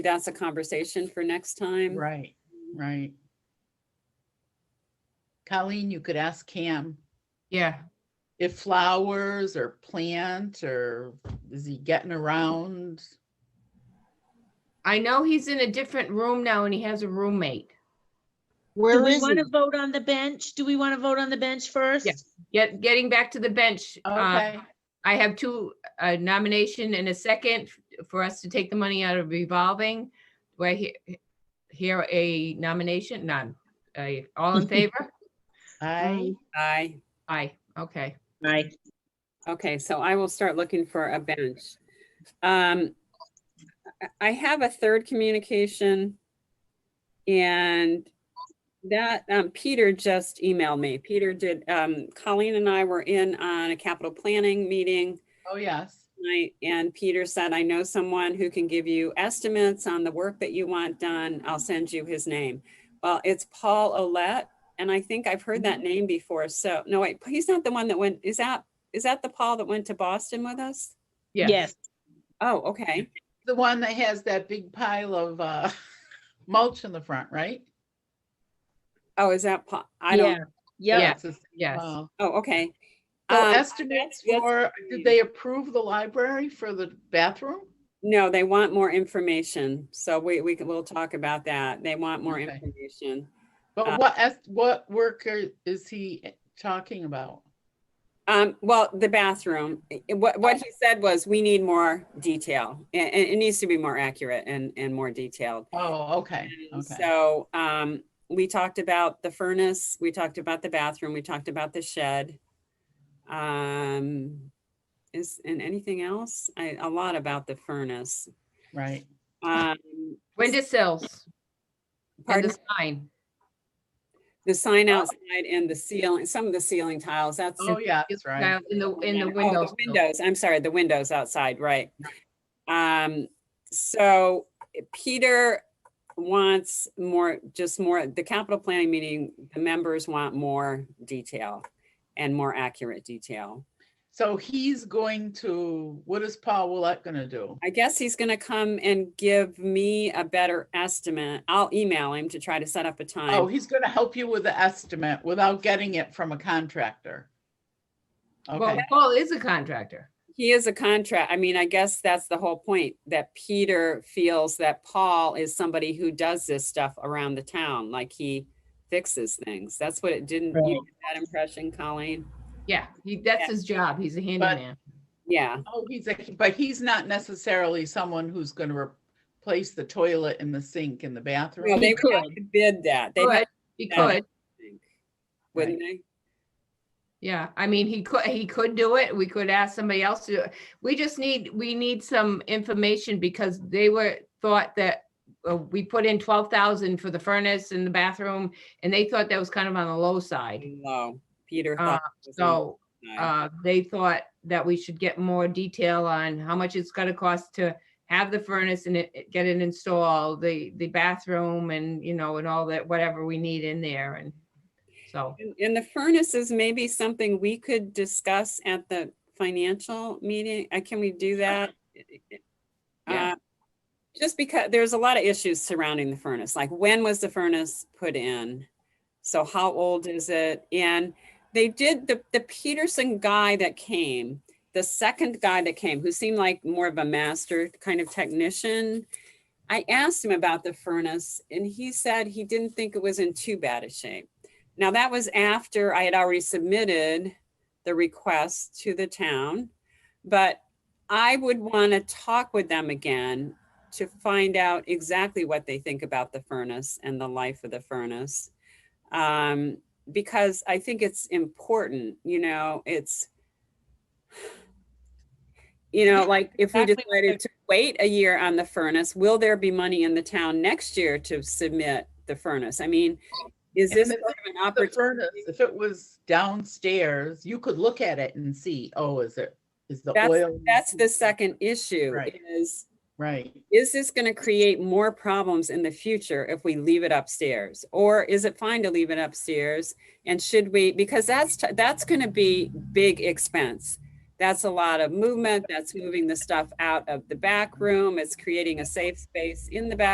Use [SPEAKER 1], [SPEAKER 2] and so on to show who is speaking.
[SPEAKER 1] that's a conversation for next time.
[SPEAKER 2] Right, right. Colleen, you could ask Cam
[SPEAKER 3] Yeah,
[SPEAKER 2] if flowers or plant or is he getting around?
[SPEAKER 3] I know he's in a different room now and he has a roommate.
[SPEAKER 4] Do
[SPEAKER 5] Where
[SPEAKER 4] we
[SPEAKER 5] is
[SPEAKER 4] want
[SPEAKER 5] he?
[SPEAKER 4] to vote on the bench? Do we want to vote on the bench first?
[SPEAKER 3] Yes. Get, getting back to the bench. uh,
[SPEAKER 2] Okay,
[SPEAKER 3] I have two, a nomination and a second for us to take the money out of revolving. Do I he- hear a nomination? None. Uh, all in favor?
[SPEAKER 1] mm-hmm.
[SPEAKER 2] I,
[SPEAKER 1] Aye.
[SPEAKER 3] Aye, okay.
[SPEAKER 4] Right.
[SPEAKER 1] Okay, so I will start looking for a bench. Um, I- I have a third communication. And that, um, Peter just emailed me. Peter did, um, Colleen and I were in on a capital planning meeting.
[SPEAKER 2] oh, yes.
[SPEAKER 1] Right, and Peter said, I know someone who can give you estimates on the work that you want done. I'll send you his name. Well, it's Paul Olet, and I think I've heard that name before. So, no, wait, he's not the one that went, is that, is that the Paul that went to Boston with us?
[SPEAKER 3] Yeah.
[SPEAKER 4] Yes.
[SPEAKER 1] Oh, okay.
[SPEAKER 2] The one that has that big pile of uh mulch in the front, right?
[SPEAKER 1] Oh, is that Paul? I
[SPEAKER 4] Yeah.
[SPEAKER 1] don't,
[SPEAKER 4] Yeah.
[SPEAKER 2] It's the same
[SPEAKER 3] yes.
[SPEAKER 2] pile.
[SPEAKER 1] oh, okay.
[SPEAKER 2] So
[SPEAKER 1] Um,
[SPEAKER 2] estimates
[SPEAKER 1] that's- that's-
[SPEAKER 2] for, did they approve the library for the bathroom?
[SPEAKER 1] No, they want more information. So we, we can, we'll talk about that. They want more
[SPEAKER 2] Okay.
[SPEAKER 1] information. Uh,
[SPEAKER 2] But what, est- what worker is he talking about?
[SPEAKER 1] Um, well, the bathroom, i- i- what, what he said was, we need more detail. And, it needs to be more accurate and, and more detailed.
[SPEAKER 2] Oh, okay,
[SPEAKER 1] And
[SPEAKER 2] okay.
[SPEAKER 1] So, um, we talked about the furnace, we talked about the bathroom, we talked about the shed. Um, is, and anything else? I, a lot about the furnace.
[SPEAKER 2] Right,
[SPEAKER 1] Um,
[SPEAKER 3] Window sills and
[SPEAKER 1] pardon,
[SPEAKER 3] the sign.
[SPEAKER 1] the sign outside and the ceiling, some of the ceiling tiles, that's.
[SPEAKER 2] oh, yeah, that's right.
[SPEAKER 3] In the, in the
[SPEAKER 1] Oh,
[SPEAKER 3] windows.
[SPEAKER 1] Windows, I'm sorry, the windows outside, right. Um, so Peter wants more, just more, the capital planning meeting, the members want more detail and more accurate detail.
[SPEAKER 2] So he's going to, what is Paul Willett gonna do?
[SPEAKER 1] I guess he's gonna come and give me a better estimate. I'll email him to try to set up a
[SPEAKER 2] Oh,
[SPEAKER 1] time.
[SPEAKER 2] he's gonna help you with the estimate without getting it from a contractor.
[SPEAKER 3] Well,
[SPEAKER 2] Okay,
[SPEAKER 3] Paul is a contractor.
[SPEAKER 1] He is a contract, I mean, I guess that's the whole point, that Peter feels that Paul is somebody who does this stuff around the town, like he fixes things. That's what it didn't, you get that impression, Colleen?
[SPEAKER 3] Yeah, he, that's
[SPEAKER 1] Yeah.
[SPEAKER 3] his job. He's a handyman.
[SPEAKER 1] Yeah,
[SPEAKER 2] oh, he's, a- but he's not necessarily someone who's gonna replace the toilet and the sink in the
[SPEAKER 1] well,
[SPEAKER 2] bathroom.
[SPEAKER 1] they would have to bid that, they,
[SPEAKER 3] Could, he
[SPEAKER 1] Yeah.
[SPEAKER 3] could.
[SPEAKER 1] wouldn't they?
[SPEAKER 3] Yeah, I mean, he could, he could do it. We could ask somebody else to, do it. we just need, we need some information because they were, thought that uh, we put in twelve thousand for the furnace and the bathroom, and they thought that was kind of on the low side.
[SPEAKER 1] No, Peter
[SPEAKER 3] Uh,
[SPEAKER 1] thought. it was on
[SPEAKER 3] So,
[SPEAKER 1] the side.
[SPEAKER 3] uh, they thought that we should get more detail on how much it's gonna cost to have the furnace and it, it- get it installed, the, the bathroom and, you know, and all that, whatever we need in there and so,
[SPEAKER 1] And- And the furnaces may be something we could discuss at the financial meeting. Uh, Can we do that?
[SPEAKER 3] Yeah.
[SPEAKER 1] Uh, Just because there's a lot of issues surrounding the furnace, like when was the furnace put in? So how old is it? And they did, the, the Peterson guy that came, the second guy that came, who seemed like more of a master kind of technician. I asked him about the furnace and he said he didn't think it was in too bad a shape. Now, that was after I had already submitted the request to the town, but I would want to talk with them again to find out exactly what they think about the furnace and the life of the furnace. Um, because I think it's important, you know, it's, you know, like if we
[SPEAKER 4] Exactly what
[SPEAKER 1] decided to wait a year on the furnace, will there be money in the town next year to submit the furnace? I mean, is
[SPEAKER 2] And
[SPEAKER 1] this
[SPEAKER 2] the-
[SPEAKER 1] sort of an
[SPEAKER 2] The
[SPEAKER 1] opportunity?
[SPEAKER 2] furnace, if it was downstairs, you could look at it and see, oh, is it, is the
[SPEAKER 1] That's-
[SPEAKER 2] oil?
[SPEAKER 1] That's the second issue
[SPEAKER 2] Right.
[SPEAKER 1] is,
[SPEAKER 2] Right,
[SPEAKER 1] is this going to create more problems in the future if we leave it upstairs? Or is it fine to leave it upstairs? And should we, because that's, t- that's going to be big expense. That's a lot of movement. That's moving the stuff out of the back room. It's creating a safe space in the back.